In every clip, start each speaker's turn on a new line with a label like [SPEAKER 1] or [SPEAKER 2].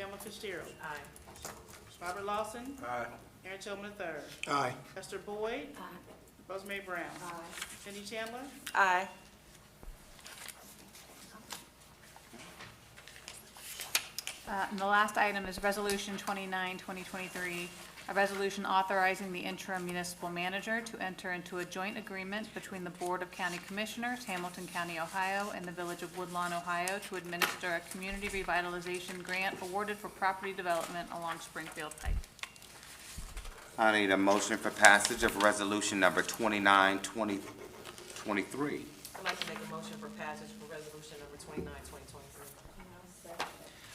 [SPEAKER 1] Alderman Fitzgerald.
[SPEAKER 2] Aye.
[SPEAKER 1] Robert Lawson.
[SPEAKER 3] Aye.
[SPEAKER 1] Aaron Tillman III.
[SPEAKER 3] Aye.
[SPEAKER 1] Lester Boyd.
[SPEAKER 2] Aye.
[SPEAKER 1] Rosemary Brown.
[SPEAKER 2] Aye.
[SPEAKER 1] Cindy Chandler.
[SPEAKER 2] Aye.
[SPEAKER 4] Uh, And the last item is Resolution 29, 2023, a resolution authorizing the interim municipal manager to enter into a joint agreement between the Board of County Commissioners, Hamilton County, Ohio, and the Village of Woodlawn, Ohio, to administer a community revitalization grant awarded for property development along Springfield Pike.
[SPEAKER 5] I need a motion for passage of resolution number 29, 2023.
[SPEAKER 2] I'd like to make a motion for passage for resolution number twenty-nine, twenty twenty-three.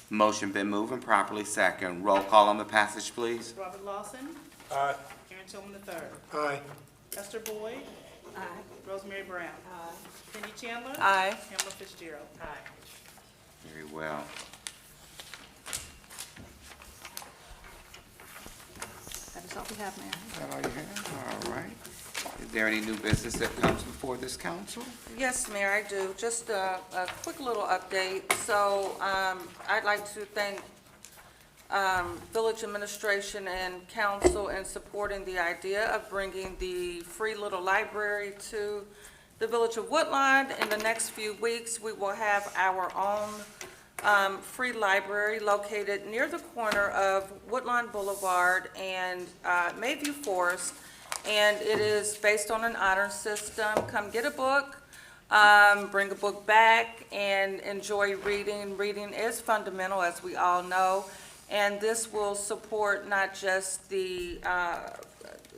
[SPEAKER 5] Motion been moved and properly second. Roll call on the passage, please.
[SPEAKER 1] Robert Lawson.
[SPEAKER 3] Aye.
[SPEAKER 1] Aaron Tillman III.
[SPEAKER 3] Aye.
[SPEAKER 1] Lester Boyd.
[SPEAKER 2] Aye.
[SPEAKER 1] Rosemary Brown.
[SPEAKER 2] Aye.
[SPEAKER 1] Cindy Chandler.
[SPEAKER 2] Aye.
[SPEAKER 1] Hamilton Fitzgerald.
[SPEAKER 2] Aye.
[SPEAKER 5] Very well.
[SPEAKER 4] That is all we have, Mayor.
[SPEAKER 5] Is that all you have? All right. Is there any new business that comes before this council?
[SPEAKER 6] Yes, Mayor, I do. Just a, a quick little update. So, um, I'd like to thank, um, village administration and council in supporting the idea of bringing the free little library to the village of Woodlawn. In the next few weeks, we will have our own, um, free library located near the corner of Woodlawn Boulevard and, uh, Mayview Forest. And it is based on an honor system. Come get a book, um, bring a book back and enjoy reading. Reading is fundamental, as we all know, and this will support not just the, uh,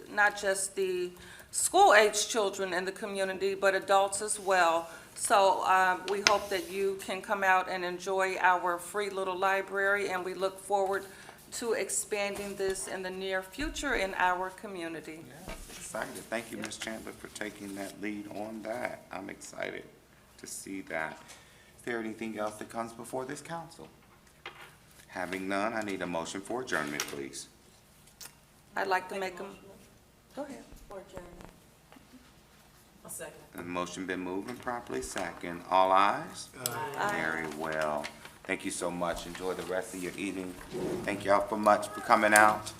[SPEAKER 6] not just the school-aged children in the community, but adults as well. So uh, we hope that you can come out and enjoy our free little library, and we look forward to expanding this in the near future in our community.
[SPEAKER 5] Excited. Thank you, Ms. Chandler, for taking that lead on that. I'm excited to see that. Is there anything else that comes before this council? Having none, I need a motion for adjournment, please.
[SPEAKER 6] I'd like to make them. Go ahead.
[SPEAKER 2] A second.
[SPEAKER 5] The motion been moved and properly second. All ayes? Very well. Thank you so much. Enjoy the rest of your evening. Thank y'all for much for coming out.